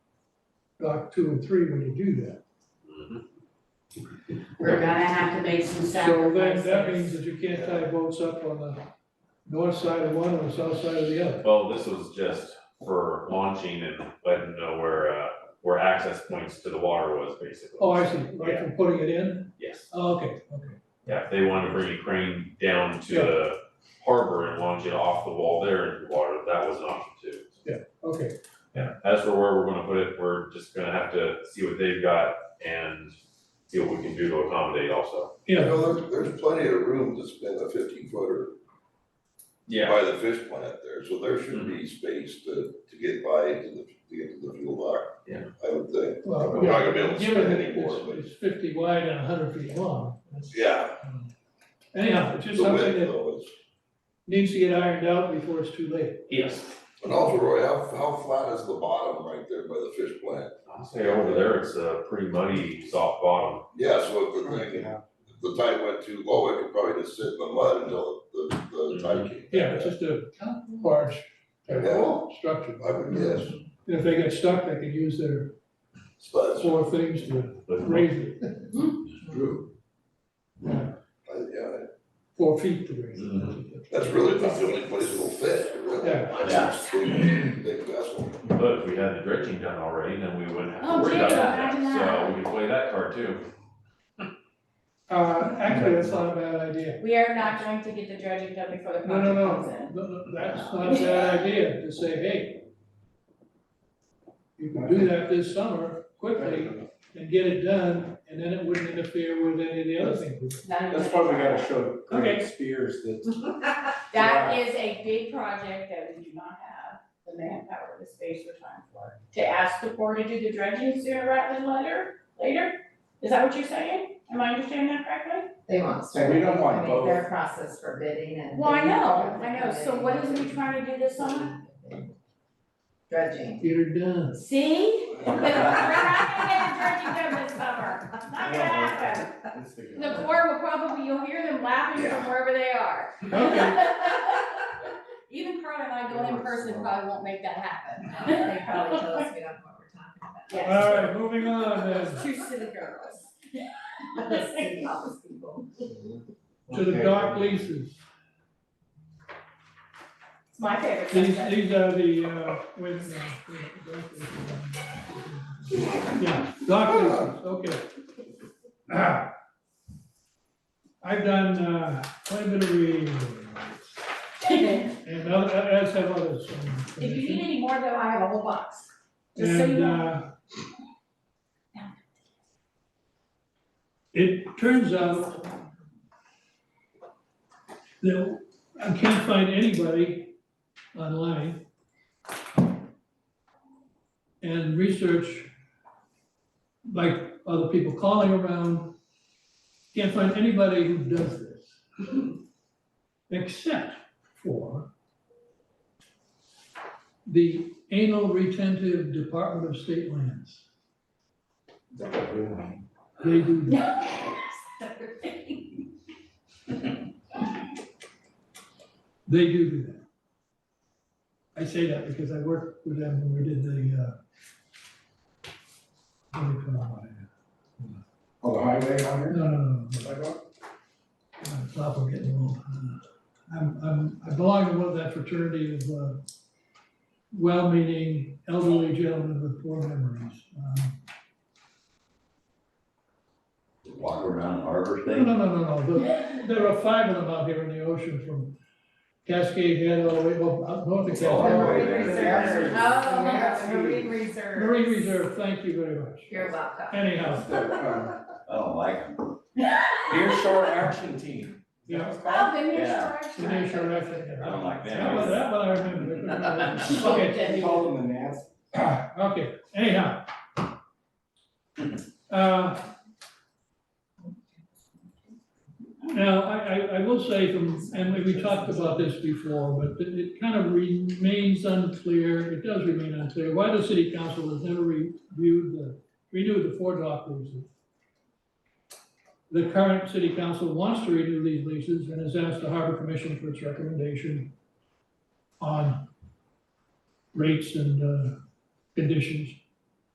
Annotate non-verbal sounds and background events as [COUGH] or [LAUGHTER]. dock two and three when you do that. We're gonna have to make some So then that means sacrifices. that you can't tie boats up on the north side of one or the south side of the other. Well, this was just for launching and letting know where, uh, where access points to the water was basically. Oh, I see, like from putting it in? Yes, Oh, okay, okay. yeah, if they wanted to bring a crane down to the harbor and launch it off the wall there into the water, that was an option too. Okay, Yeah, as for where we're gonna put it, we're just gonna have to see what they've got and see what we can do to accommodate also. You yeah, know, there's, there's plenty of room to spin a fifteen footer by the fish plant there, so there should be space to, to get by to the, to get to the fuel dock. Yeah. I would think, well, we're not gonna be able to given spin that anymore, it's- but, it's fifty wide and hundred feet long. that's- yeah, Anyhow, it's just the something width that though is. needs to get ironed out before it's too late. Yes. And also, Roy, how, how flat is the bottom right there by the fish plant? I'll say over there, it's a pretty muddy, soft bottom. Yeah, so if the thing, if the tide went too low, it could probably just sit in the mud until the, the tide came. back Yeah, it's up. just a large type Yeah. of structure. I would guess, And if they get stuck, they can use their but four things to But- raise it, it's true. Yeah. I- yeah, four feet to raise it. Mhm. that's really about the only place it'll fit, really. Yeah. That's a big, big vessel. But if we had the dredging done already, then we wouldn't have Oh, to worry about gee, that, imagine so that. we can play that card too. Uh, actually, that's not a bad idea. We are not going to get the dredging done before the No, no, project no, comes in. No, no, that's not a bad idea to say, hey, you can do that this summer quickly and get it done, and then it wouldn't interfere with any of the other things. None of That's it. why we gotta show Okay. Greg Spears that, [LAUGHS] That is a big project that we do not have the manpower, the space or time for. To ask the Corps to do the dredging sooner rather than later, later? Is that what you're saying? Am I understanding that correctly? They won't start, We bidding. don't want I mean, [LAUGHS] their both. process for bidding and. Well, I know, I know. So what is we trying to do this summer? [LAUGHS] Dredging. Get it done. See? We're not gonna get the dredging done this summer. Not gonna happen. The Corps will probably, you'll hear them laughing from Yeah. wherever they are. Okay, Even Carl and I going in person probably won't make that happen. They probably tell us we don't know what all we're talking about. Yes. right, moving on then. Two city girls. The city office people. to the dock leases. It's my favorite These, subject. these are the, uh, wait a minute. wait, dock leases. Yeah, dock leases, okay. Ah. [CLEARS THROAT] I've done, uh, quite a bit of reading, If and other- uh, as have others. um, you need any more though, I have a whole box. Just so you And, know. uh, it turns out that I can't find anybody online. And research, like other people calling around, can't find anybody who does this. Except for the anal retentive Department of State lands. They do that. They do do that. I say that because I worked with them when we did the, uh, what do you call it? on the highway out here, No, no, no, no. [LAUGHS] sidewalk, I'm stop, I'm getting old. Uh, I'm, I'm, I belong to one of that fraternity of, uh, well-meaning elderly gentlemen with poor memories. Um, walk around harbor No, thing. no, no, no, no, The- there are five of them out here in the ocean from Cascade Head all the way up, up north of Oh, Cascade. boy. Marine Reserve. Oh, Yeah, Marine Reserve. Marine Reserve, thank you very much. You're welcome. Anyhow, that, um, I don't like them. Near Shore Action Team. Is that what it's called? Oh, then you're Yeah. charged. the nation after I don't like That one, them. that one I remember. I couldn't remember. [LAUGHS] Okay, They call them the Nats. okay, anyhow. Uh, Now, I, I, I will say from, and we- we talked about this before, but it, it kind of remains unclear, it does remain unclear, why the city council has never reviewed the, renewed the four dock leases. The current city council wants to renew these leases and has asked the harbor commission for its recommendation on rates and, uh, conditions.